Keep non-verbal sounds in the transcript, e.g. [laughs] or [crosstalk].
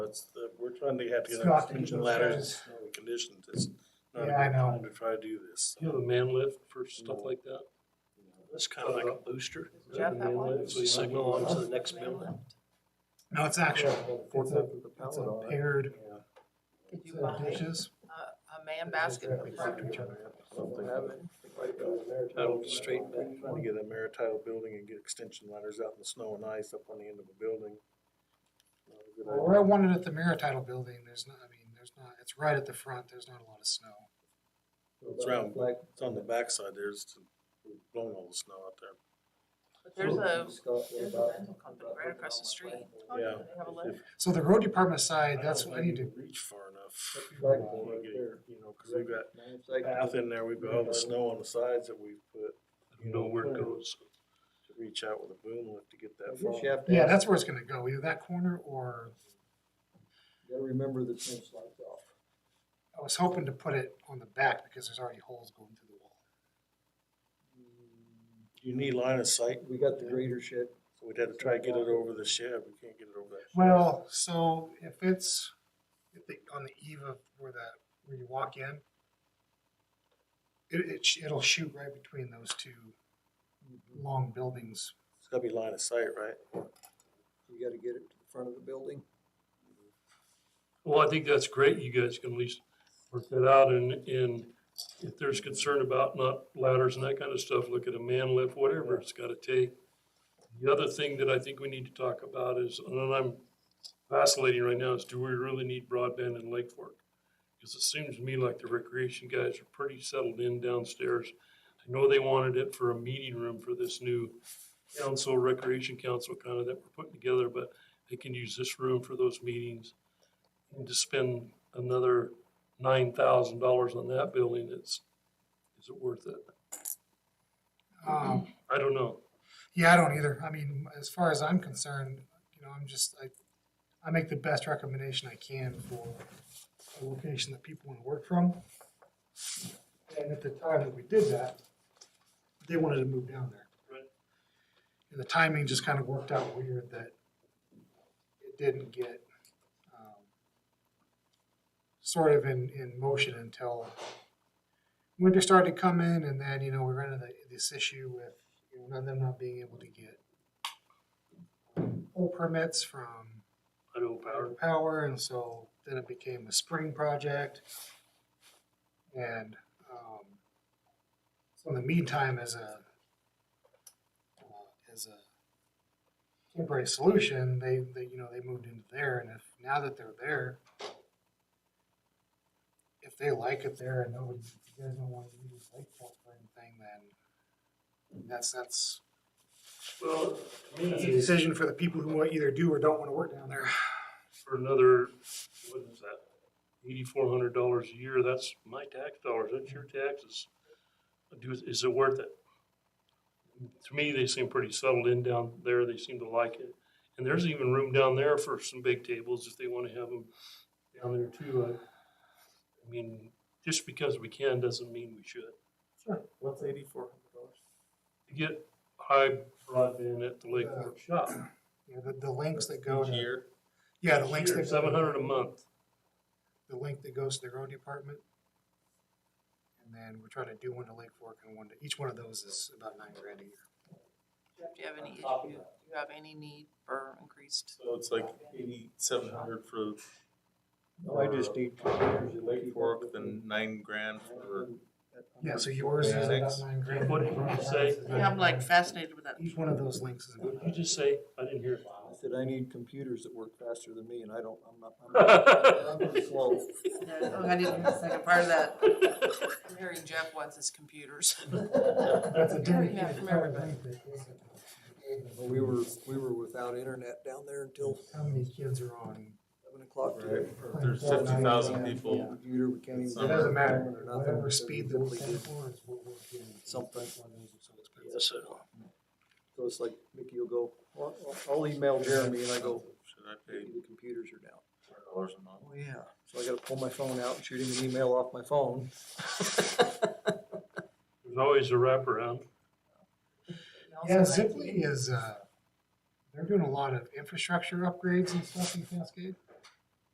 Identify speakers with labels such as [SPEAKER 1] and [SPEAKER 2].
[SPEAKER 1] fun, they have to get on
[SPEAKER 2] Scott, they
[SPEAKER 1] suspension
[SPEAKER 2] do those
[SPEAKER 1] ladders and
[SPEAKER 2] guys.
[SPEAKER 1] snowy conditions, it's not a
[SPEAKER 2] Yeah, I
[SPEAKER 1] good
[SPEAKER 2] know.
[SPEAKER 1] time to try to do this.
[SPEAKER 3] You have a man lift for stuff
[SPEAKER 1] No.
[SPEAKER 3] like that?
[SPEAKER 1] It's kind of like a booster,
[SPEAKER 3] Is that a man lift? So you signal on to the next building?
[SPEAKER 2] No, it's actual, it's a, it's a paired
[SPEAKER 4] Could you
[SPEAKER 2] set of
[SPEAKER 4] buy a
[SPEAKER 2] uh, dishes.
[SPEAKER 4] Uh, a man basket for front?
[SPEAKER 3] That'll straighten it.
[SPEAKER 1] trying to get a maritile building and get extension ladders out in the snow and ice up on the end of a building. Not a good
[SPEAKER 2] Well, Where I wanted at the Maritidal building, there's not, I mean, there's not, it's right at the front, there's not a lot of snow.
[SPEAKER 1] idea. It's round, it's on the backside, there's blowing all the snow out there.
[SPEAKER 4] But there's a, there's a rental company right across the street.
[SPEAKER 1] Yeah.
[SPEAKER 4] They have a lift.
[SPEAKER 2] So the road department side, that's what I need to,
[SPEAKER 1] Reach far enough.
[SPEAKER 5] Like
[SPEAKER 1] You
[SPEAKER 5] that right
[SPEAKER 1] get-
[SPEAKER 5] there.
[SPEAKER 1] You know, cause we've got path in there, we've got all the snow on the sides that we've put
[SPEAKER 3] I don't know where it goes.
[SPEAKER 1] to reach out with a boom lift to get that far.
[SPEAKER 2] yeah,
[SPEAKER 5] Yeah,
[SPEAKER 2] that's where it's gonna go, either that corner or,
[SPEAKER 5] Gotta remember the trench lights off.
[SPEAKER 2] I was hoping to put it on the back because there's already holes going through the wall.
[SPEAKER 1] You need line of sight,
[SPEAKER 5] We got the grader shed.
[SPEAKER 1] so we'd have to try to get it over the shed, we can't get it over that. shed.
[SPEAKER 2] Well, so if it's, if the, on the eve of where that, where you walk in, it, it, sh- it'll shoot right between those two long buildings.
[SPEAKER 1] It's gotta be line of sight, right?
[SPEAKER 5] You gotta get it to the front of the building.
[SPEAKER 3] Well, I think that's great. You guys can at least work that out and, and if there's concern about not ladders and that kind of stuff, look at a man lift, whatever it's gotta take. The other thing that I think we need to talk about is, and I'm vacillating right now, is do we really need broadband in Lake Fork? Because it seems to me like the recreation guys are pretty settled in downstairs. I know they wanted it for a meeting room for this new council, recreation council kind of that we're putting together, but they can use this room for those meetings and to spend another nine thousand dollars on that building, it's, is it worth it?
[SPEAKER 2] Um,
[SPEAKER 3] I don't know.
[SPEAKER 2] Yeah, I don't either. I mean, as far as I'm concerned, you know, I'm just, I, I make the best recommendation I can for a location that people wanna work from. And at the time that we did that, they wanted to move down there.
[SPEAKER 3] Right.
[SPEAKER 2] And the timing just kinda worked out weird that it didn't get, um, sort of in, in motion until winter started coming and then, you know, we ran into the- this issue with, you know, not them not being able to get pole permits from
[SPEAKER 3] I don't power.
[SPEAKER 2] Power Power, and so then it became a spring project. And, um, so in the meantime, as a, uh, as a temporary solution, they, they, you know, they moved into there, and if, now that they're there, if they like it there and nobody, if you guys don't want to use Lakeport for anything, then that's, that's
[SPEAKER 3] Well, to
[SPEAKER 2] that's a
[SPEAKER 3] me,
[SPEAKER 2] decision for the people who either do or don't want to work down there.
[SPEAKER 3] for another, what is that? Eighty-four hundred dollars a year, that's my tax dollars, that's your taxes. Do, is it worth it? To me, they seem pretty settled in down there, they seem to like it. And there's even room down there for some big tables if they wanna have them down there too. I- I mean, just because we can doesn't mean we should.
[SPEAKER 2] Sure.
[SPEAKER 1] What's eighty-four hundred dollars?
[SPEAKER 3] to get high broadband at the Lake
[SPEAKER 2] Uh,
[SPEAKER 3] Fork shop.
[SPEAKER 2] Yeah, the, the links that go to,
[SPEAKER 1] Year,
[SPEAKER 2] yeah, the links that.
[SPEAKER 3] Seven hundred a month.
[SPEAKER 2] The link that goes to the road department. And then we're trying to do one to Lake Fork and one to, each one of those is about nine grand a year.
[SPEAKER 4] Jeff, Do you have any issue? Do you have any need for increased?
[SPEAKER 1] so it's like eighty-seven hundred for.
[SPEAKER 5] No, I just
[SPEAKER 1] need
[SPEAKER 5] two years of
[SPEAKER 1] Lake
[SPEAKER 5] Lake
[SPEAKER 1] Fork,
[SPEAKER 5] Fork,
[SPEAKER 1] then
[SPEAKER 5] then
[SPEAKER 1] nine grand for.
[SPEAKER 2] Yeah, so yours is about
[SPEAKER 1] Six.
[SPEAKER 2] nine grand.
[SPEAKER 3] What did you say?
[SPEAKER 4] Yeah, I'm like fascinated with that.
[SPEAKER 2] Each one of those links is.
[SPEAKER 3] What
[SPEAKER 2] about
[SPEAKER 3] did you just say? I didn't hear. it.
[SPEAKER 5] I said, I need computers that work faster than me and I don't, I'm not, [laughs] I'm not, I'm slow.
[SPEAKER 4] [laughs] Oh, I didn't hear the second part of that. I'm hearing Jeff wants his [laughs] computers.
[SPEAKER 2] nine. That's a
[SPEAKER 4] Yeah,
[SPEAKER 2] dedicated
[SPEAKER 4] from
[SPEAKER 2] part of
[SPEAKER 4] everybody.
[SPEAKER 2] link that goes to-
[SPEAKER 5] But We were, we were without internet down there until
[SPEAKER 2] How many kids are on?
[SPEAKER 5] seven o'clock today.
[SPEAKER 1] There's fifty thousand people,
[SPEAKER 5] Computer, we can't even.
[SPEAKER 1] It
[SPEAKER 2] It doesn't matter,
[SPEAKER 5] Nothing.
[SPEAKER 2] whatever speed that we
[SPEAKER 5] Simply
[SPEAKER 2] get
[SPEAKER 5] did.
[SPEAKER 2] for is what we're getting.
[SPEAKER 5] Something.
[SPEAKER 2] Something.
[SPEAKER 5] So it's like, Mickey will go, "Well, I'll, I'll email Jeremy and I go,
[SPEAKER 1] should I pay
[SPEAKER 5] "Mickey, the computers are down.
[SPEAKER 1] hundred dollars a month?
[SPEAKER 5] Oh, yeah. So I gotta pull my phone out and shoot him an email off my phone. [laughs]
[SPEAKER 3] There's always a wraparound.
[SPEAKER 2] Yeah, Zipley is, uh, they're doing a lot of infrastructure upgrades and stuff in Cascade.